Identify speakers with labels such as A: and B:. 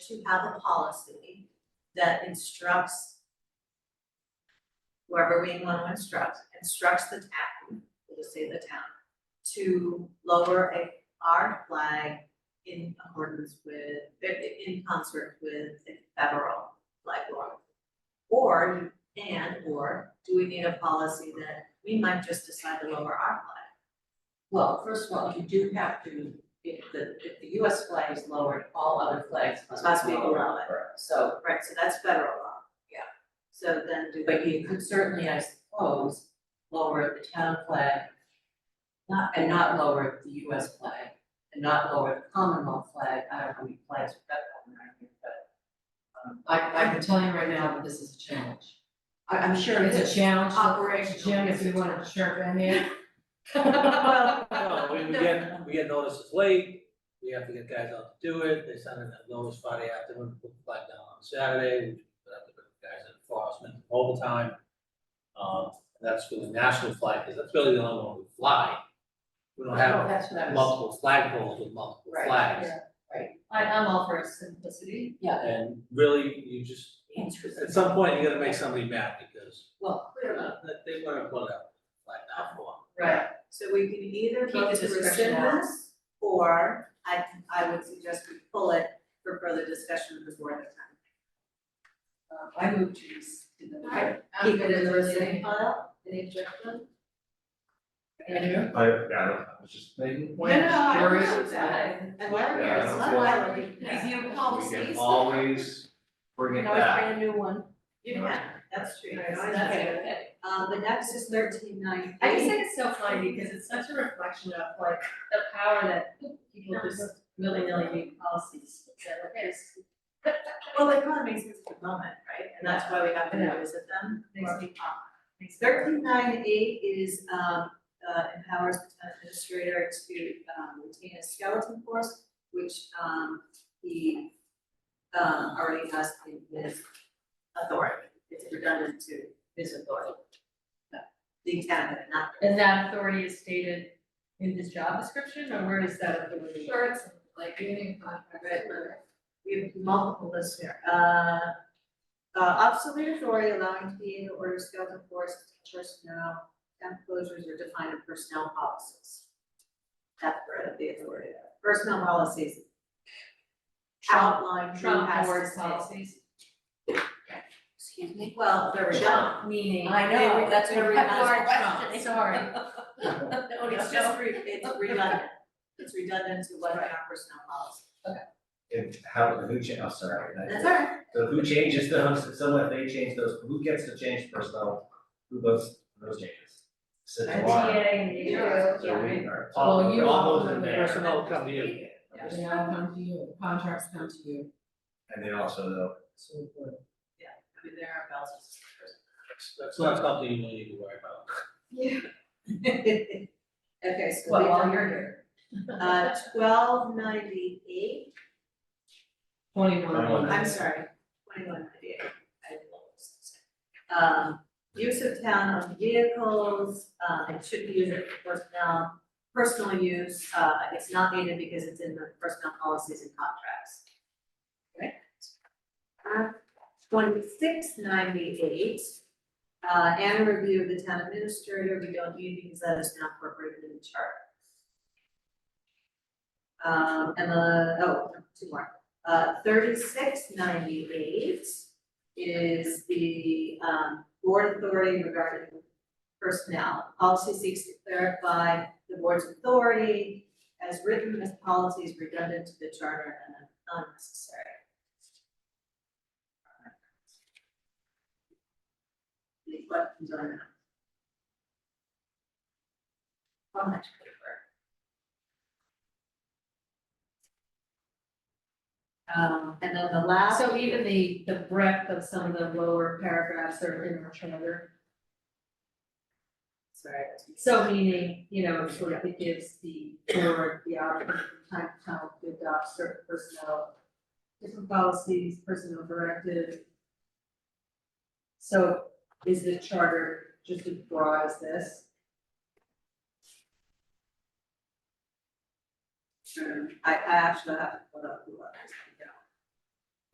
A: to have a policy that instructs whoever we want to instruct, instructs the town, we'll just say the town, to lower a, our flag in accordance with, in concert with the federal flag law. Or, and, or, do we need a policy that we might just decide to lower our flag?
B: Well, first of all, you do have to, if the, if the US flag is lowered, all other flags
A: Must
B: must
A: be
B: be lowered.
A: below it.
B: So,
A: Right, so that's federal law. Yeah. So then do
B: but
A: we,
B: you could certainly, I suppose, lower the town flag. Not, and not lower the US flag, and not lower the Commonwealth flag, I don't know how many flags we've got going around here, but. um,
C: I, I can tell you right now that this is a challenge.
B: I, I'm sure it
C: It's
B: is.
C: a challenge.
A: Operational.
C: Jim, if you want to chirp in there.
D: No, we, we get, we get notices late, we have to get guys out to do it, they send in that notice Friday afternoon, put the flag down on Saturday, we have to put the guys in enforcement overtime. Um, and that's for the national flag, because that's really the only one we fly. We don't have
B: That's what I was,
D: multiple flag poles with multiple
B: Right,
D: flags.
E: I, I'm all for simplicity.
B: yeah,
D: And really, you just, at some point, you gotta make somebody mad, because
B: well,
D: they're not, they wanna put a flag down for.
B: right,
A: so we can either
B: Keep
A: vote
B: the
A: to
B: discretion
A: rescind
B: out.
A: this, or I, I would suggest we pull it for further discussion with the board at
B: um,
A: the Uh,
B: I moved to this, to the.
E: Alright.
A: time. Keep it in the rescinding file?
E: Any objection?
C: Andrew?
F: I, yeah, I don't, I was just thinking.
E: No, no, I don't
C: Curious.
E: know that.
A: And why are we,
F: Yeah, I don't
A: why
F: feel-
A: are we?
E: Review
F: We can
E: policies.
F: always bring it back.
E: a new one.
A: You can, that's true.
E: Right, so
A: Always
E: that's
A: have it.
E: okay.
A: Um, the next is thirteen ninety.
E: I just think it's so funny because it's such a reflection of like the power that people just willy-nilly make policies. So, okay, this
A: Well, they kind of makes sense for the moment, right? And that's why we have to revisit them.
E: makes me pop.
A: Thanks. Thirteen nine eight is, um, uh, empowers the town administrator to, um, retain a skeleton force, which, um, he, um, already has in his authority. It's redundant to his authority. The town, not.
E: And that authority is stated in this job description or where is that authority?
C: Sure, it's like getting a contract.
A: We have multiple lists here, uh. Uh, obsolete authority allowing TA to order skeleton force personnel, temp closures are defined in personnel policies. That's where the authority, is. personnel policies. Outline who
E: Trump
A: has to
E: board
A: stay.
E: policies.
A: Excuse me, well, they're redundant.
E: Meaning.
A: I know,
E: They were-
A: that's what
E: they were
A: we asked
E: asked.
A: Trump.
E: Sorry. No, no,
A: It's
E: no.
A: just, re- it's redundant, it's redundant to what in our personnel policy,
F: And how, who cha, oh, sorry. I-
A: that's all right,
F: So who changes those, so if they change those, who gets to change personnel, who goes, those changes? So
E: A
F: the
E: TA
F: law,
E: and the
C: Yeah.
F: so
E: E.
F: we are,
C: Well,
F: all,
C: you
F: all
C: all
F: those in
C: know
F: there.
D: Personnel come to you.
C: They all come to you, contracts come to you.
F: And then also the,
C: So we put it.
A: I mean, there are bells and suspenders.
D: That's- That's not something you really need to worry about.
A: Okay, so
E: Well,
A: we've
E: while
A: done-
E: you're here.
A: Uh, twelve ninety-eight,
C: Twenty-one.
F: Twenty-one.
A: I'm sorry, twenty-one ninety-eight, I lost. Um, use of town-owned vehicles, uh, it should be used for personnel, personal use, uh, it's not needed because it's in the personnel policies and contracts. Okay. Uh, twenty-six ninety-eight, uh, and a review of the town administrator, we don't need because that is now incorporated in the charter. Um, and the, oh, two more, uh, thirty-six ninety-eight is the, um, board authority regarding personnel. Policy seeks to clarify the board's authority as written as policy is redundant to the charter and unnecessary. Any questions on that? How much paper? Um, and then the last.
E: So even the, the breadth of some of the lower paragraphs are in our charter.
A: Sorry.
E: So meaning, you know, it sort of it gives the board the option from time to time to adopt certain personnel, different policies, personnel directive. So is the charter just as broad as this?
A: I, I actually have to put up the letters.